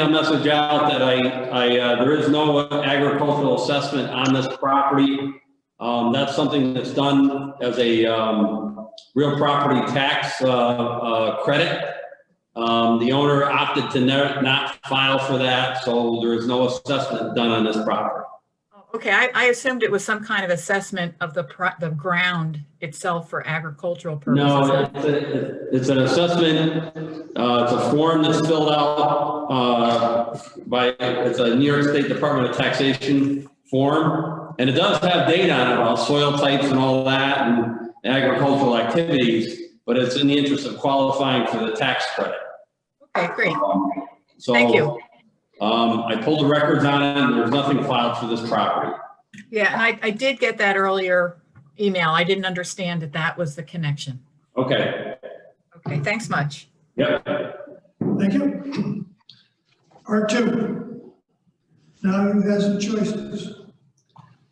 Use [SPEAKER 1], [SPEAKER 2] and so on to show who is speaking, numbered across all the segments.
[SPEAKER 1] a message out that I, I, uh, there is no agricultural assessment on this property. Um, that's something that's done as a, um, real property tax, uh, uh, credit. Um, the owner opted to ne- not file for that, so there is no assessment done on this property.
[SPEAKER 2] Oh, Okay, I, I assumed it was some kind of assessment of the, pro- the ground itself for agricultural
[SPEAKER 1] No,
[SPEAKER 2] purposes.
[SPEAKER 1] it's, a- it's an assessment, uh, it's a form that's filled out, uh, by, it's a New York State Department of Taxation form. And it does have data on it about soil types and all that and agricultural activities, but it's in the interest of qualifying for the tax credit.
[SPEAKER 2] Okay, great.
[SPEAKER 1] Um, So.
[SPEAKER 2] Thank you.
[SPEAKER 1] Um, I pulled the records on it and there's nothing filed for this property.
[SPEAKER 2] Yeah, and I, I did get that earlier email. I didn't understand that that was the connection.
[SPEAKER 1] Okay,
[SPEAKER 2] Okay, thanks much.
[SPEAKER 1] yep.
[SPEAKER 3] Thank you. R2. Now you have some choices.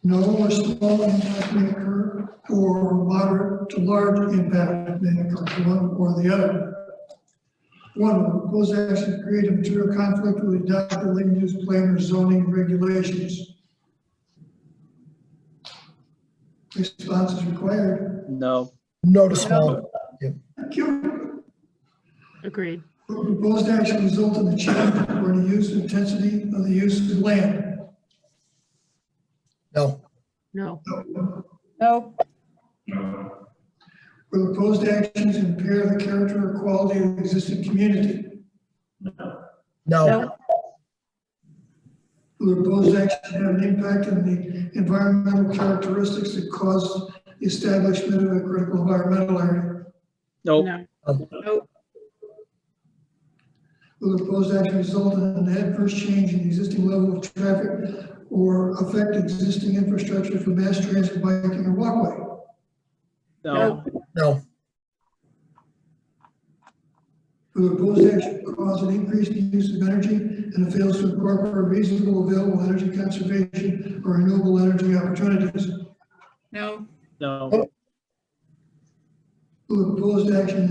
[SPEAKER 3] No or small impact may occur, or moderate to large impact may occur, one or the other. One, proposed action create a material conflict with adopted land use plan or zoning regulations. Response is required.
[SPEAKER 4] No,
[SPEAKER 5] No to small.
[SPEAKER 3] Thank you.
[SPEAKER 6] Agreed.
[SPEAKER 3] Will Proposed action result in a change or in the use intensity of the use of land.
[SPEAKER 5] No,
[SPEAKER 6] No,
[SPEAKER 3] Will proposed actions impair the character or quality of the existing community?
[SPEAKER 5] no,
[SPEAKER 3] Will proposed action have an impact on the environmental characteristics that cause the establishment of a critical environmental area?
[SPEAKER 4] no,
[SPEAKER 6] no,
[SPEAKER 3] Will proposed action result in an adverse change in the existing level of traffic or affect existing infrastructure for mass transit, biking, or walkway?
[SPEAKER 4] no,
[SPEAKER 5] no,
[SPEAKER 3] Will proposed action cause an increase in the use of energy and it fails to incorporate reasonable available energy conservation or renewable energy opportunities?
[SPEAKER 2] No,
[SPEAKER 4] no,
[SPEAKER 3] Will proposed action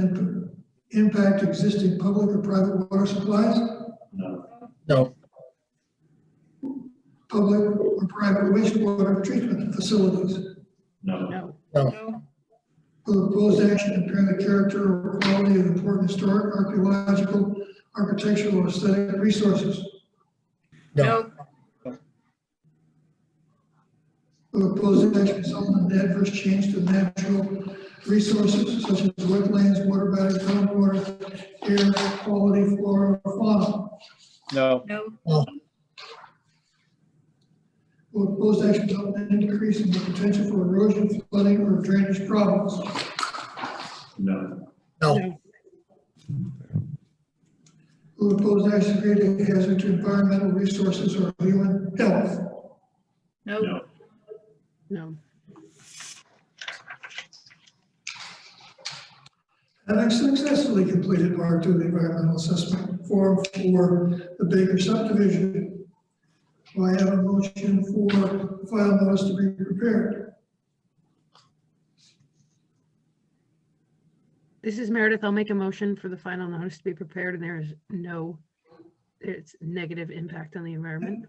[SPEAKER 3] imp- impact existing public or private water supplies,
[SPEAKER 5] no,
[SPEAKER 3] public or private wastewater treatment facilities?
[SPEAKER 6] no,
[SPEAKER 5] no,
[SPEAKER 2] no,
[SPEAKER 3] Will proposed action impair the character or quality of important historic, archaeological, architectural, or aesthetic resources?
[SPEAKER 2] no,
[SPEAKER 3] Will proposed action result in an adverse change to natural resources such as wetlands, water bodies, groundwater, air quality, flora, or fauna?
[SPEAKER 4] no,
[SPEAKER 2] no,
[SPEAKER 3] Will proposed action result in an increase in the potential for erosion, flooding, or drainage problems?
[SPEAKER 5] no,
[SPEAKER 3] Will proposed action create a hazard to environmental resources or human health?
[SPEAKER 2] no,
[SPEAKER 6] no,
[SPEAKER 3] Having successfully completed part two of the environmental assessment form for the Baker subdivision, do I have a motion for file notice to be prepared?
[SPEAKER 6] This is Meredith. I'll make a motion for the final notice to be prepared and there is no, it's negative impact on the environment.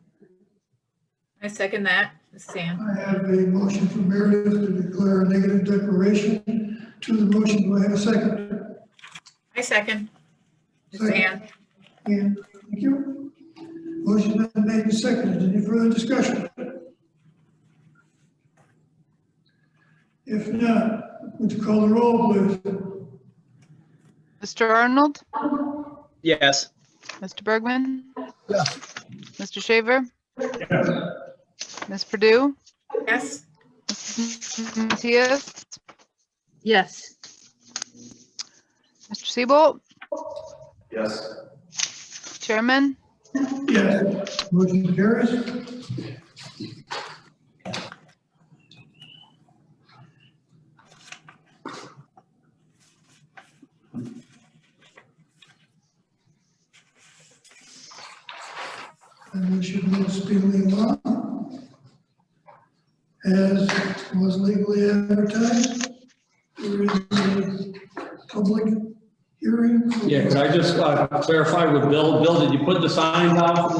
[SPEAKER 2] I second that, Sam.
[SPEAKER 3] I have a motion from Meredith to declare a negative declaration to the motion. Do I have a second?
[SPEAKER 2] I second.
[SPEAKER 3] Second.
[SPEAKER 2] Sam,
[SPEAKER 3] And thank you. Motion been made and seconded. Any further discussion? If not, would you call the roll, please?
[SPEAKER 7] Mr. Arnold?
[SPEAKER 4] yes,
[SPEAKER 7] Mr. Bergman?
[SPEAKER 5] Yeah.
[SPEAKER 7] Mr. Shaver? Ms. Purdue?
[SPEAKER 2] yes?
[SPEAKER 7] Mrs. Matias?
[SPEAKER 6] Yes,
[SPEAKER 7] Mr. Siebolt?
[SPEAKER 1] Yes.
[SPEAKER 7] Chairman?
[SPEAKER 3] Yes. Motion carries. And we should move speedily along. As was legally advertised, there is a public hearing. for
[SPEAKER 1] Yeah, could I just uh, clarify with Bill, Bill, did you put the sign out